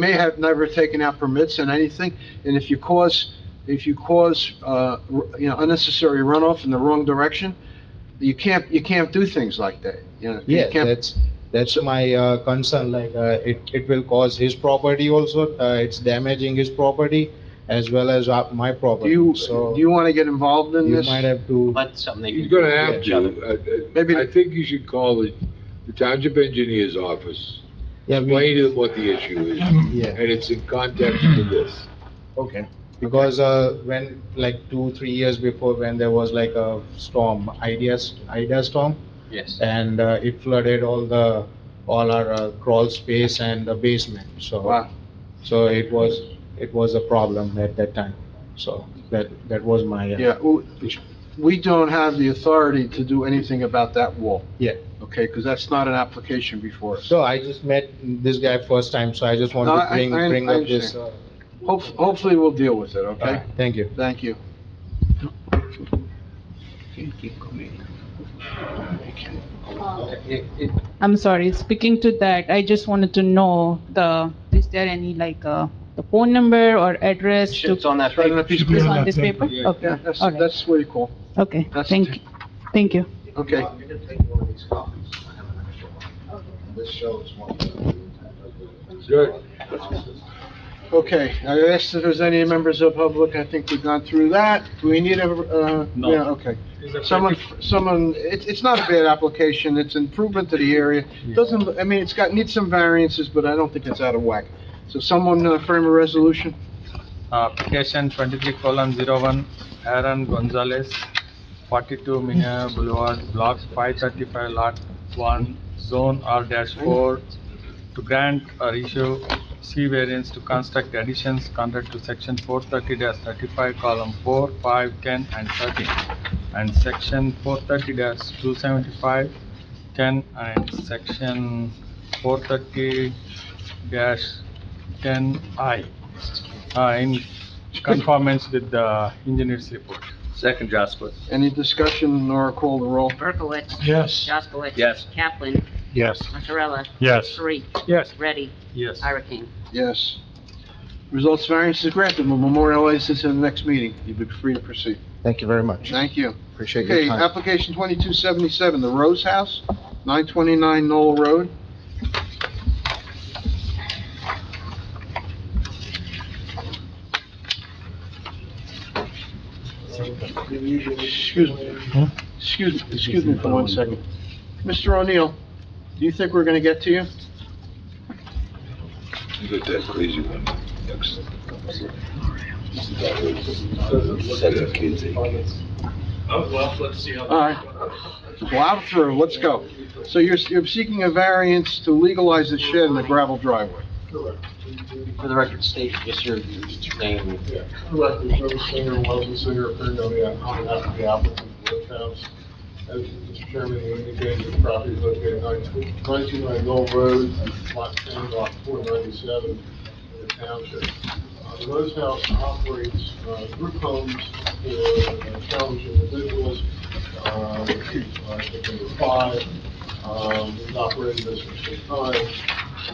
may have never taken out permits and anything, and if you cause, if you cause, uh, r- you know, unnecessary runoff in the wrong direction, you can't, you can't do things like that, you know? you Yeah, can't- that's, that's my uh, concern, like, uh, it, it will cause his property also, uh, it's damaging his property as well as uh, my Do property, you, do so you you want to get involved in this? might have to, But something they He's can do gonna with have each other. to. uh, Maybe- I- I I think you should call the the township engineer's office, yeah, explain we, to them what the issue is, Yeah. and it's in context to this. okay. Because, uh, when, like, two, three years before, when there was like a storm, ideas, idea storm, Yes. and, uh, it flooded all the, all our uh, crawl space and the basement, so, Wow. so it was, it was a problem at that time, so, that, that was my, uh, Yeah, w- we don't have the authority to do anything about that wall, yeah. okay? Because that's not an application before us. So I just met this guy first time, so I just want No, to I- bring, I- bring I up this. uh, Hope- Hopefully, we'll deal with it, okay? alright, Thank you. Thank you. It- it- I'm sorry, speaking to that, I just wanted to know the, is there any like, uh, the phone number or address to, It's on that It's right on a paper. piece of It's paper. on this paper? Yeah. Yeah, Okay, that's, all right, that's where you call, okay, that's- thank, you. thank you. okay? Good. Okay, I asked if there's any members of the public, I think we've gone through that. Do we need a, uh, No. yeah, okay. Someone, someone, it's, it's not a bad application, it's improvement to the area. Doesn't, I mean, it's got, needs some variances, but I don't think it's out of whack. So someone uh, frame a resolution? Uh, Application twenty-three colon zero one, Aaron Gonzalez, forty-two Minya Boulevard, block five thirty-five, lot one, zone R dash four, to grant or issue C variance to construct additions contrary to section four thirty thirty-five, column four, five, ten, and thirteen, and section four thirty two seventy-five, ten, and section four thirty ten I uh, in conformance with the engineer's report. Second, Jaskowitz. Any discussion, Nora call the roll? Berkowitz. Yes. Jaskowitz. Yes. Kaplan. Yes. Mazzarella. Yes. Three. Yes. Ready. Yes. Ira King. Yes. Results variance is granted, we'll memorialize this in the next meeting. You'll be free to proceed. Thank you very much. Thank you. Appreciate your Okay, time. application 2277, The Rose House, 929 Knoll Road. Excuse me, excuse, excuse me for one second. Mr. O'Neill, do you think we're going to get to you? You got that crazy one. Next. All right. Well, I'm through, let's go. So you're, you're seeking a variance to legalize the shed in the gravel driveway. For the record, state just your name. Correct, the service singer, Wesley Singer, appearing on the- on behalf of the applicant, Wood House. As Mr. Chairman you indicated, the property is located at 92 929 Knoll Road, lot 10, lot 497, in the township. Uh, The Rose House operates uh, group homes for uh, challenged individuals, uh, which is, uh, I think number five. Um, We've operated this for some time.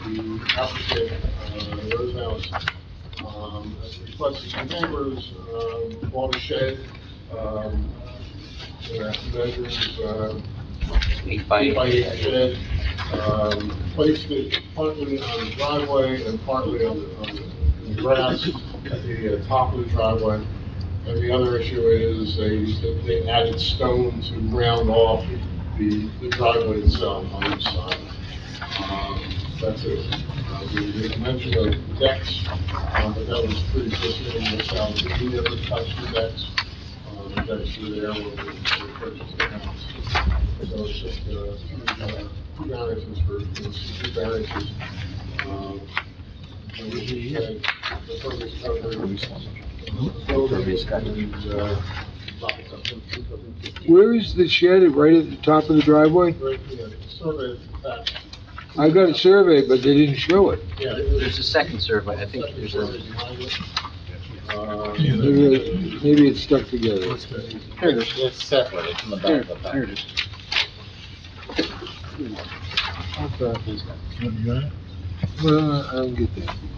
The applicant, uh, Rose House, um, as requested from neighbors, um, watershed, um, uh, measures, uh, Eight by eight by eight. eight shed, um, placed it partly on the driveway and partly on the, on the grass at the uh, top of the driveway. And the other issue is they, they added stone to round off the, the driveway itself on each side. Um, That's it. Uh, We we mentioned the decks, um, but that was pretty consistent in the sound. We never touched the decks. Uh, The decks were there when we when we purchased the house. So it's just uh, uh, two variances for, it's two variances. Um, and we had The focus covered. Buildings and, uh, lots of them, two of them. Where is the shed, right at the top of the driveway? Right, yeah, survey attached. I got a survey, but they didn't show it. Yeah, it was- There's a second survey, I think there's a, Uh, Maybe, maybe it's stuck together. Here it is, It's separate, it's in the here, back of the here pack. it is. Well, I don't get that.